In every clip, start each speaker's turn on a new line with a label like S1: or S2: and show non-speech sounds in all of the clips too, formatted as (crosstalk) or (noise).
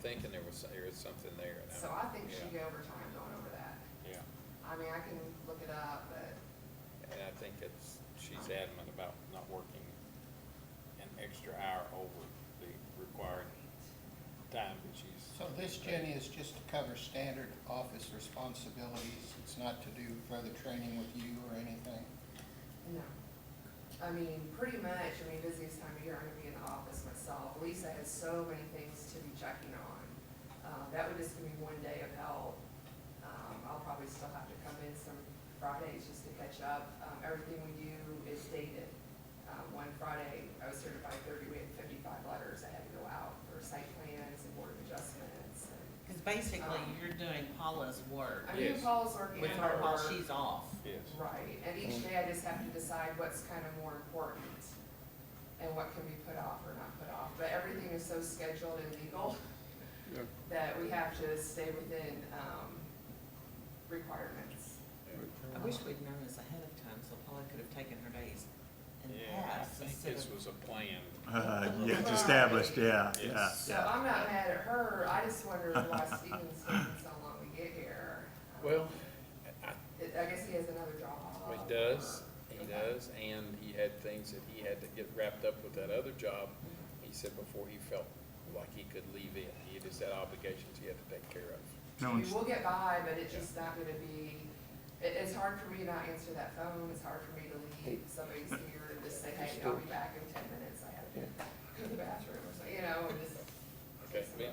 S1: thinking there was, there was something there. and I-
S2: So I think she
S1: yeah,
S2: got overtime going over that.
S1: Yeah,
S2: I mean, I can look it up, but
S1: and I think it's, she's adamant about not working an extra hour over the required time that she's.
S3: So this, Jenny, is just to cover standard office responsibilities. It's not to do further training with you or anything?
S2: no. I mean, pretty much, I mean, busiest time of year, I'm gonna be in the office myself. Lisa has so many things to be checking on. Uh, that would just give me one day of help. Um, I'll probably still have to come in some Fridays just to catch up. Um, everything we do is dated. Um, one Friday, I was certified thirty, we had fifty-five letters I had to go out for site plans and board of adjustments and
S4: Because basically, you're doing Paula's work
S2: I mean,
S1: Yes.
S2: Paul's working
S4: with
S2: on
S4: Um, her
S2: her
S4: while
S2: work.
S4: she's off.
S1: Yes,
S2: Right, and each day I just have to decide what's kind of more important and what can be put off or not put off. But everything is so scheduled and legal
S5: Yeah.
S2: that we have to stay within, um, requirements.
S4: I wish we'd known this ahead of time, so Paula could have taken her days in
S1: yeah, I
S4: past
S1: think
S4: instead
S1: this
S4: of.
S1: was a plan.
S5: Uh, yeah, it's established, yeah, yeah,
S1: Yes.
S2: So
S5: yeah.
S2: I'm not mad at her, I just wondered
S1: (laughs)
S2: why Steven's taking so long to get here.
S1: Well,
S2: I I guess he has another job.
S1: He does,
S2: or-
S1: he
S2: Okay.
S1: does, and he had things that he had to get wrapped up with that other job. He said before he felt like he could leave it, he just had obligations he had to take care of.
S5: No
S2: I mean,
S5: one's-
S2: we'll get by, but it's just not gonna be, it, it's hard for me to not answer that phone, it's hard for me to leave, somebody's
S6: (laughs)
S2: here and just say, hey, I'll be back in ten minutes, I have to go to the bathroom or something, you know, and just.
S1: Okay, yeah.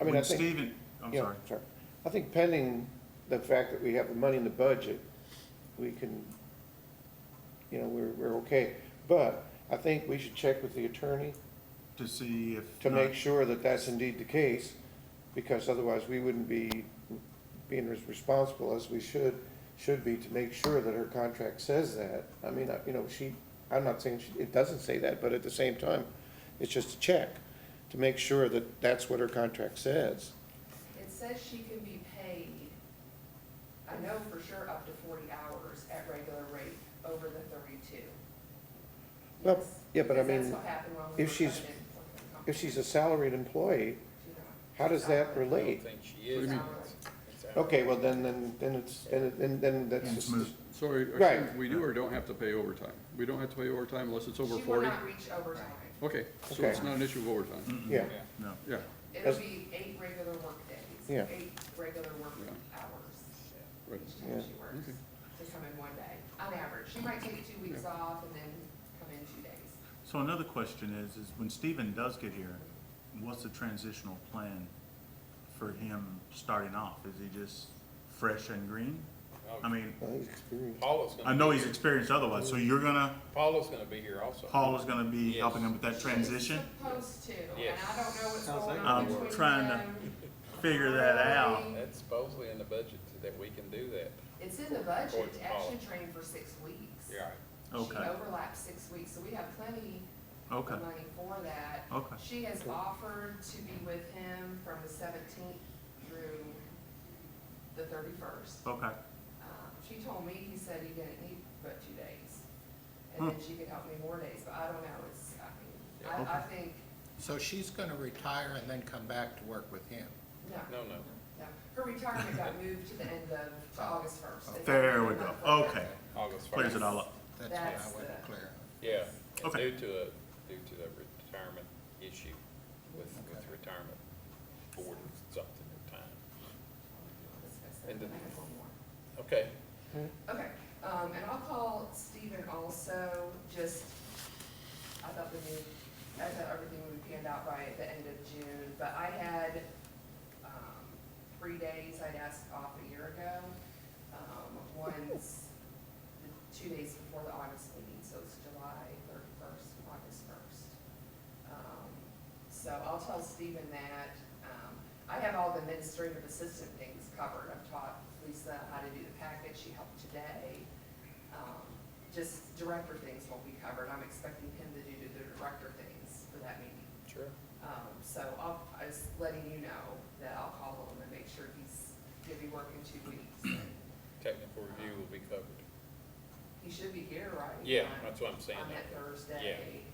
S6: I mean, I
S5: When
S6: think,
S5: Steven, I'm
S6: yeah,
S5: sorry,
S6: sorry. I think pending the fact that we have the money in the budget, we can, you know, we're, we're okay. But I think we should check with the attorney
S5: to see if.
S6: to make
S5: not-
S6: sure that that's indeed the case, because otherwise we wouldn't be being as responsible as we should, should be to make sure that her contract says that. I mean, I- you know, she, I'm not saying she, it doesn't say that, but at the same time, it's just a check to make sure that that's what her contract says.
S2: It says she can be paid, I know for sure, up to forty hours at regular rate over the thirty-two.
S6: Well,
S2: Yes,
S6: yeah, but I
S2: because
S6: mean,
S2: That's what happened when we
S6: if
S2: were
S6: she's-
S2: trying to implement the company.
S6: If she's a salaried employee,
S2: She's not.
S6: how does that
S1: I don't
S6: relate?
S1: think she is.
S2: What do you mean?
S1: It's out.
S6: Okay, well, then, then, then it's, then, it- then, then that's
S5: And
S6: just,
S5: smooth.
S7: So are you- are
S6: Right.
S7: you- we do or don't have to pay overtime? We don't have to pay overtime unless it's over
S2: She will
S7: forty?
S2: not reach overtime.
S7: Okay, so
S6: Okay.
S7: it's not an issue of overtime?
S5: Mm-mm,
S6: yeah,
S1: Yeah.
S5: No,
S7: Yeah,
S2: It'll
S6: That's-
S2: be eight regular work
S6: Yeah.
S2: days, eight regular work
S7: Yeah.
S2: hours
S7: right.
S2: each time
S6: Yeah.
S2: she works,
S7: Okay.
S2: to come in one day, on average. She might take two weeks off and then come in two days.
S5: so another question is, is when Steven does get here, what's the transitional plan for him starting off? Is he just fresh and green? I mean,
S6: well, he's experienced.
S1: Paula's gonna.
S5: I know
S1: be
S5: he's
S1: here.
S5: experienced otherwise, so you're gonna,
S1: Paula's gonna be here also.
S5: Paul is gonna be
S1: Yes.
S5: helping him with that transition?
S2: She's supposed to, and I
S1: Yes.
S2: don't know what's
S7: Sounds
S2: going
S7: like
S2: on
S5: it. I'm
S2: between
S5: trying to-
S2: them.
S5: Figure that out.
S1: That's supposedly in the budget that we can do that.
S2: It's in the
S1: Or
S2: budget,
S1: it's
S2: to actually train for six weeks.
S1: Yeah,
S2: She
S5: Okay.
S2: overlaps six weeks, so we have plenty
S5: Okay,
S2: of money for that.
S5: okay.
S2: She has offered to be with him from the seventeenth through the thirty-first.
S5: Okay,
S2: Um, She told me, he said he didn't need but two days, and then she could help me more days, but I don't know, it's, I mean, I, I think,
S3: So she's going to retire and then come back to work with him?
S2: no,
S1: no, no.
S2: no. Her retirement got moved to the end of, to August
S5: Oh,
S2: first.
S5: there we go, okay.
S1: August first.
S5: Clears it all up.
S3: That's what
S2: That's
S3: I wasn't
S2: the-
S3: clear
S1: Yeah, and
S5: Okay.
S1: due to a, due to the retirement issue with, with
S3: Okay.
S1: retirement board or something or time. And the- Okay,
S2: Okay, um, and I'll call Stephen also, just, I thought the new, I thought everything would be panned out by the end of June, but I had, um, three days I'd asked off a year ago. Um, one's the two days before the August meeting, so it's July thirty-first, August first. Um, so I'll tell Stephen that, um, I have all the administrative assistant things covered, I've taught Lisa how to do the packet, she helped today. Um, Just director things won't be covered, I'm expecting him to do the director things for that meeting.
S1: sure.
S2: Um, so I'll, I was letting you know that I'll call him and make sure he's gonna be working two weeks. and
S1: Technical review will be covered.
S2: He should be here, right?
S1: Yeah,
S2: On-
S1: that's what I'm saying.
S2: On that Thursday. um,